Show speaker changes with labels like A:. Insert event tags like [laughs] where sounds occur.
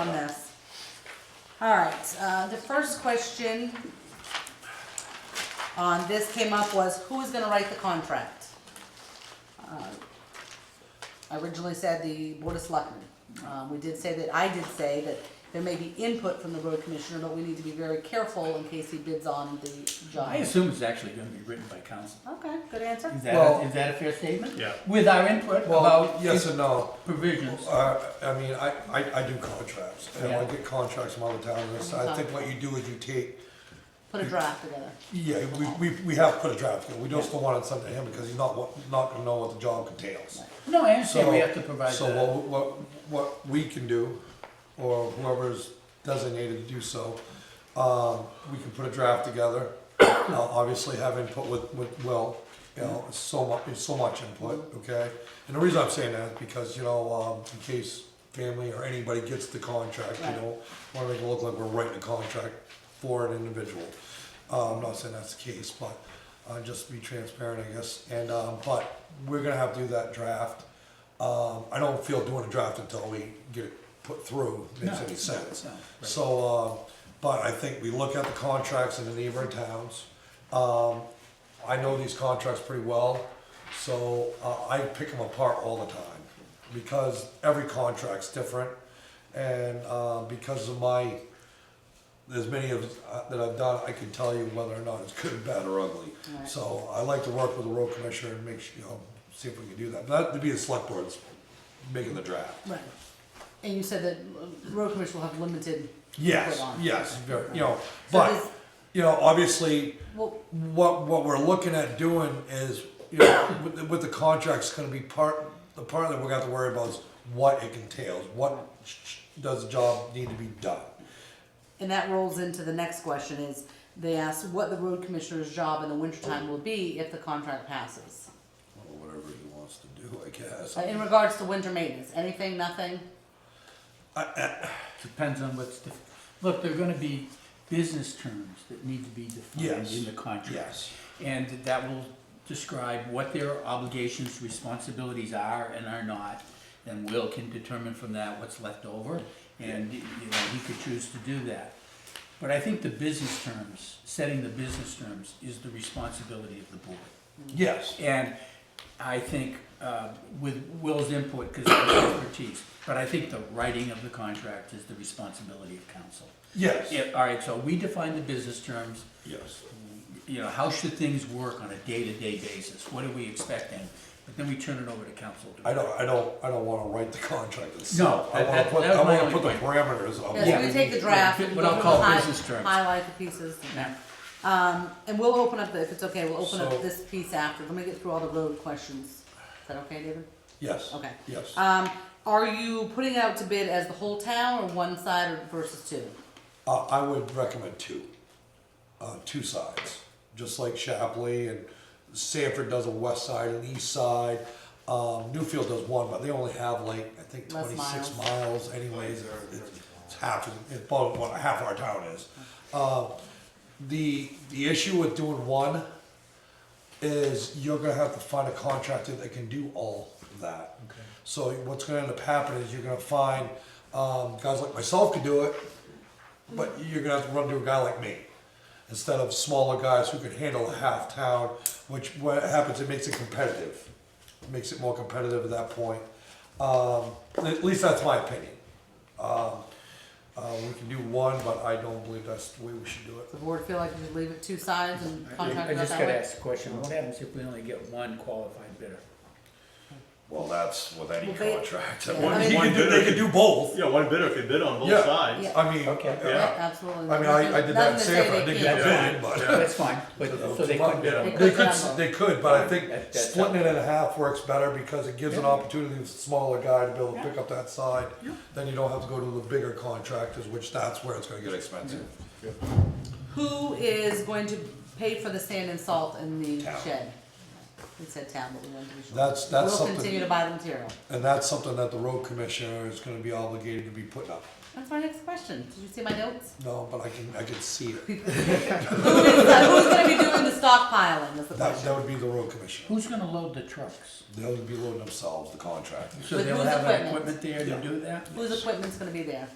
A: on this. All right, uh, the first question on this came up was who is gonna write the contract? Uh, I originally said the Board of Selectmen. Uh, we did say that, I did say that there may be input from the road commissioner, but we need to be very careful in case he bids on the
B: I
A: job.
B: assume it's actually gonna be written by council.
A: Okay, good answer.
B: Is that,
C: Well-
B: a- is that a fair statement?
D: Yeah.
B: With our input
C: Well,
B: about
C: yes
B: its
C: and no.
B: provisions.
C: Uh, I mean, I, I, I do contracts, and I
B: Yeah.
C: get contracts from other towns, I think what you do is you take,
A: Put a draft together.
C: yeah, we, we, we have put a draft, together. we just don't want to send it to him because he's not, wa- not gonna know what the job entails.
B: No, I
C: So
B: understand we have to provide
C: So
B: the,
C: what, what, what we can do, or whoever's designated to do so, um, we can put a draft together. Now, obviously have input with, with Will, you know, it's so much, it's so much input, okay? And the reason I'm saying that is because, you know, um, in case family or anybody gets the contract, you
A: Right.
C: don't wanna make it look like we're writing a contract for an individual. Uh, I'm not saying that's the case, but, uh, just to be transparent, I guess, and, um, but we're gonna have to do that draft. Um, I don't feel doing a draft until we get it put through, makes
B: No,
C: any sense.
B: no, right.
C: So, um, but I think we look at the contracts in the neighboring towns. Um, I know these contracts pretty well, so uh, I pick them apart all the time because every contract's different. And uh, because of my, there's many of uh, that I've done, I can tell you whether or not it's good, bad, or ugly.
A: Right.
C: So I like to work with the road commissioner and make sure, you know, see if we can do that. But that'd be the select board's making the draft.
A: Right. And you said that uh, road commissioner will have limited.
C: Yes,
A: input on it.
C: yes, very, you know,
A: So does-
C: but, you know, obviously,
A: Well,
C: what, what we're looking at doing is, you know, with, the- with the contract's gonna be part, the part that we're gonna have to worry about is what it entails, what does the job need to be done?
A: And that rolls into the next question is, they asked what the road commissioner's job in the wintertime will be if the contract passes.
C: Or whatever he wants to do, I guess.
A: Uh, In regards to winter maintenance, anything, nothing?
B: depends on what's, the- look, there are gonna be business terms that need to be defined
C: Yes.
B: in the contract.
C: Yes.
B: And that will describe what their obligations, responsibilities are and are not. And Will can determine from that what's left over, and, you know, he could choose to do that. But I think the business terms, setting the business terms is the responsibility of the board.
C: Yes,
B: And I think uh, with Will's input, because of his expertise, but I think the writing of the contract is the responsibility of council.
C: yes,
B: Yeah, all right, so we define the business terms,
C: yes.
B: you know, how should things work on a day-to-day basis? What are we expecting? But then we turn it over to council. to-
C: I don't, I don't, I don't wanna write the contract
B: No,
C: itself. I
B: that-
C: wanna
B: that-
C: put,
B: that was
C: I
B: my
C: wanna
B: only
C: put the
B: point.
C: parameters of.
A: Yeah, so we
B: Yeah.
A: take the draft.
B: Yeah,
A: and
B: what
A: we
B: I'll
A: can
B: call
A: hi-
B: business terms.
A: Highlight the pieces.
B: Yeah.
A: Um, and we'll open up the, if it's okay, we'll open up
C: So-
A: this piece after. Let me get through all the road questions. Is that okay, David?
C: Yes,
A: Okay.
C: yes.
A: Um, are you putting out to bid as the whole town or one side or versus two?
C: Uh, I would recommend two, uh, two sides, just like Shapley and Sanford does a west side and east side. Um, Newfield does one, but they only have like, I think
A: Less
C: twenty-six miles anyways, or it's- it's half, it's about what half our town is. Uh, the, the issue with doing one is you're gonna have to find a contractor that can do all of that. So what's gonna end up happening is you're gonna find, um, guys like myself could do it, but you're gonna have to run to a guy like me instead of smaller guys who can handle a half town, which what happens, it makes it competitive. It Makes it more competitive at that point. Um, at least that's my opinion. Um, uh, we can do one, but I don't believe that's the way we should do it.
A: The board feel like you should leave it two sides and contract
B: I
A: it out
B: just
A: that
B: gotta
A: way?
B: ask the question, what happens if we only get one qualified bidder?
C: Well, that's with any
A: Well, they-
C: contract.
A: yeah.
D: One-
C: He
D: one
C: can do, they
D: bidder.
C: can do both.
D: Yeah, one bidder could bid on
C: Yeah.
D: both sides.
A: Yeah.
C: I mean,
B: Okay.
C: yeah.
A: Yeah, Absolutely.
C: I mean, I, I did that in
A: Nothing to say
C: Sanford, I
A: they
C: didn't
A: can't.
C: get a bid, but.
B: That's fine, but, so they couldn't bid on
A: They
B: it.
C: They
A: could
C: could,
A: jump.
C: they could, but I think
B: That- that's
C: splitting it in half works better because it gives an opportunity to the smaller guy to be able to pick up that side. Then you don't have to go to the bigger contractors, which that's where it's gonna get expensive.
A: Who is going to pay for the sand and salt in the
C: Town.
A: shed? We said town, but we wanted to be sure.
C: That's- that's
A: We'll
C: something-
A: continue to buy the material.
C: And that's something that the road commissioner is gonna be obligated to be putting up.
A: That's my next question. Did you see my
C: [laughs]
A: notes?
C: No, but I can, I can see it.
A: Who is, uh, who's gonna be doing the stockpiling is the
C: That,
A: question.
C: that would be the road commissioner.
B: Who's gonna load the trucks?
C: They would be loading themselves, the contractors.
B: So
A: With
B: they'll
A: whose
B: have an
A: equipment?
B: equipment there to do that?
A: Whose equipment's gonna be there?